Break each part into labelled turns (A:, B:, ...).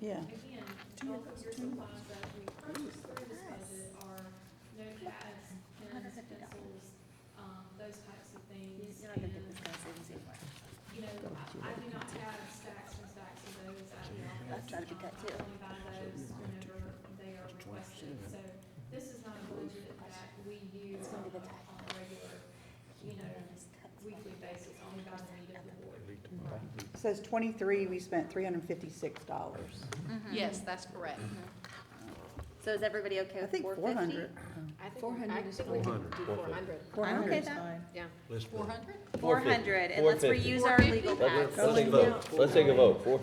A: Yeah.
B: Again, all of your supplies that we purchased through this budget are notepads, pens, pencils, um, those types of things.
C: You're not gonna get
B: And,
C: this guy's savings anywhere.
B: you know, I I do not have stacks and stacks of those at the office.
C: I've tried to do that
B: Um,
C: too.
B: I only buy those whenever they are requested, so this is not a budget that we use on a on a regular, you know, weekly basis, only by the need of the board.
A: Says twenty-three, we spent three hundred and fifty-six dollars.
D: Yes, that's correct.
C: So is everybody okay
A: I
C: with
A: think
C: four
A: four
C: fifty?
A: hundred.
E: I think,
D: Four
E: we- I
D: hundred is
E: think we
F: fine.
E: can do
F: Four
E: four hundred.
A: Four
C: I'm
A: hundred
C: okay
A: is
C: with that.
A: fine.
E: Yeah.
F: Let's
D: Four
F: vote.
D: hundred?
C: Four hundred, and let's
F: 450.
C: reuse our
D: 450?
C: legal
F: Let's
C: pads.
F: take a vote, let's take a vote, four,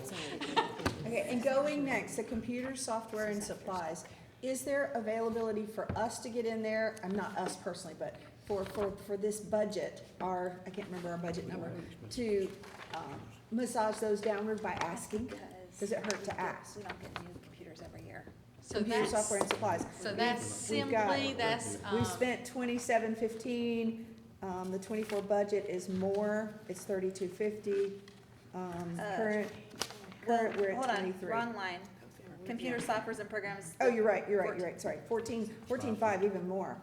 A: Okay, and going next, the computer software and supplies, is there availability for us to get in there? I'm not us personally, but for, for, for this budget, our, I can't remember our budget number, to, um, massage those downward by asking? Does it hurt to ask?
C: We don't get new computers every year.
D: So
A: Computer
D: that's,
A: software and supplies.
D: so that's
A: We've got-
D: simply, that's,
A: We
D: um,
A: spent twenty-seven fifteen, um, the twenty-four budget is more, it's thirty-two fifty, um,
C: Uh,
A: current,
C: Well,
A: current, we're
C: hold
A: at
C: on,
A: twenty-three.
C: Wrong line. Computer softwares and programs.
A: Oh, you're right, you're right, you're right, sorry, fourteen, fourteen five, even more.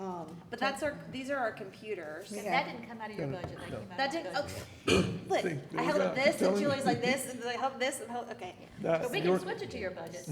A: Um,
C: But that's our, these are our computers.
A: Yeah.
G: That didn't come out of your budget, that came out of.
C: That
G: the
C: didn't,
G: budget.
C: okay, look, I held up this, and
H: telling
C: Julie's like this, and I held up this, and held, okay.
G: But
H: That's
G: we
H: your,
G: can switch it to your budget.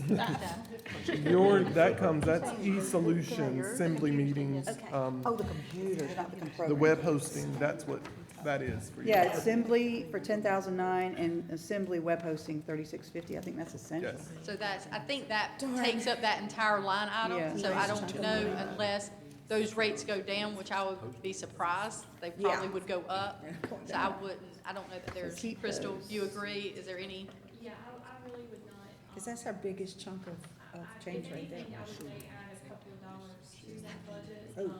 G: So,
H: your, that comes, that's e-solutions, assembly meetings,
C: Okay.
H: um,
A: Oh, the computer, not the
H: the
A: computer.
H: web hosting, that's what that is for you.
I: Yeah, assembly for ten thousand nine and assembly web hosting thirty-six fifty, I think that's essential.
H: Yes.
D: so that's, I think that takes up that entire line item,
I: Yeah.
D: so I don't know unless those rates go down, which I would be surprised, they
A: Yeah.
D: probably would go up. So I wouldn't, I don't know that there's,
I: keep
D: Crystal,
I: those.
D: you agree, is there any?
B: Yeah, I, I really would not. um,
A: Cause that's our biggest chunk of, of
B: I-
A: change right there.
B: If anything, I would say add a couple of dollars to that budget.
A: Oh,
B: um,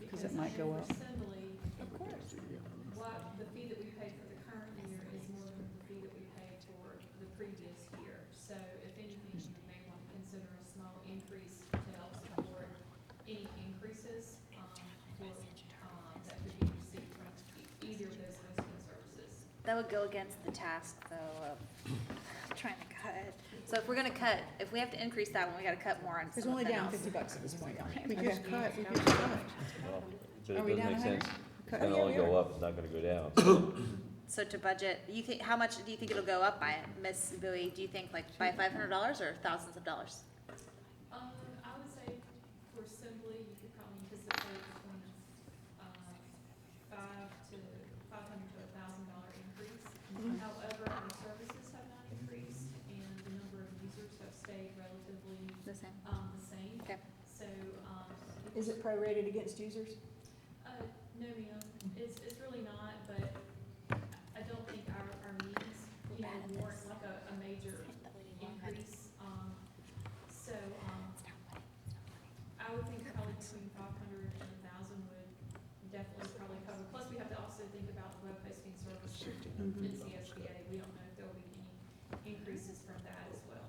I: because it might go
B: under
I: up.
B: Assembly. Of course. What, the fee that we paid for the current year is more than the fee that we paid for the previous year. So if anything, you may want to consider a small increase to help support any increases, um, for, um, that could be received from e- either of those hosting services.
C: That would go against the task, though, of trying to cut. So if we're gonna cut, if we have to increase that one, we gotta cut more on
A: It's
C: something
A: only down
C: else.
A: fifty bucks at this point.
I: We
A: Okay.
I: just cut, we just cut.
F: Well, but it
A: Are we down
F: doesn't make
A: a hundred?
F: sense, it's
A: Oh,
F: gonna
A: yeah,
F: only
A: we are.
F: go up, it's not gonna go down, so
C: So to budget, you think, how much do you think it'll go up by, Miss Bowie? Do you think like by five hundred dollars or thousands of dollars?
B: Um, I would say for assembly, you could probably anticipate between, uh, five to, five hundred to a thousand dollar increase. However, our services have not increased and the number of users have stayed relatively,
C: The same.
B: um, the same.
C: Okay.
B: So, um,
A: Is it prorated against users?
B: uh, no, ma'am, it's, it's really not, but I don't think our, our needs, you know, warrant like a, a major increase. Um, so, um, I would think probably between five hundred and a thousand would definitely probably cover, plus we have to also think about web hosting service and CSBA, we don't know if there will be any increases from that as well.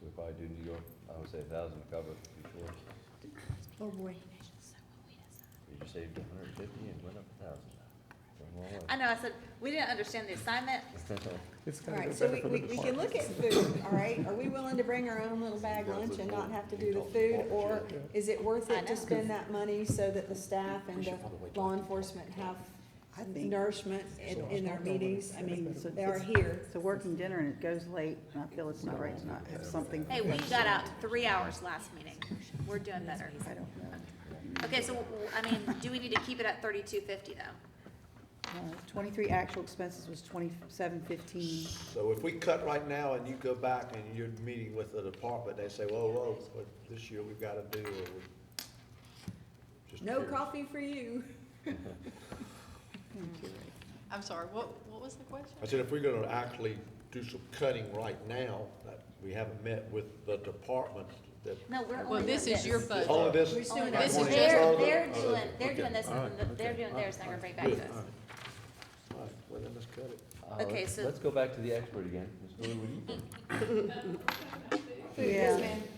F: we probably do New York, I would say a thousand to cover it, for sure.
A: Oh, boy.
F: You just saved a hundred and fifty and went up a thousand. Went one way.
C: I know, I said, we didn't understand the assignment.
H: It's gonna go
A: Alright, so
H: better for
A: we, we,
H: the
A: we can
H: department.
A: look at food, alright? Are we willing to bring our own little bag lunch and not have to do the food? Or is it worth it to spend that money so that the staff and the law enforcement have
I: I think,
A: nourishment in, in our meetings? I mean,
I: So
A: they are
I: it's-
A: here.
I: it's a working dinner and it goes late, and I feel it's not right to not have something.
C: Hey, we got out three hours last meeting. We're doing better.
I: I don't know.
C: Okay, so, w- I mean, do we need to keep it at thirty-two fifty though?
I: Uh, Twenty-three actual expenses was twenty-seven fifteen.
J: So if we cut right now and you go back and you're meeting with the department, they say, whoa, whoa, what this year we've gotta do, or we. just
A: No
J: curious.
A: coffee for you.
D: I'm sorry, what, what was the question?
J: I said, if we're gonna actually do some cutting right now, that we haven't met with the department, that.
C: No, we're only
D: Well,
C: doing
D: this
C: this.
D: is your budget.
J: All of this.
A: We're still
J: Like
A: doing
D: this.
J: one
D: This is
J: each
D: just-
C: They're,
J: other?
C: they're
J: Oh,
C: doing, they're
J: okay.
C: doing this,
J: All right,
C: and then they're
J: okay,
C: doing
J: all
C: theirs, and they're
J: right,
C: gonna bring it back to
J: good, all
C: us.
J: right. All right, well, then let's cut it.
F: Uh, let's-
C: Okay, so-
F: Let's go back to the expert again, Ms. Bowie, what do you think?
I: Yeah.
A: Yes, ma'am.
B: um,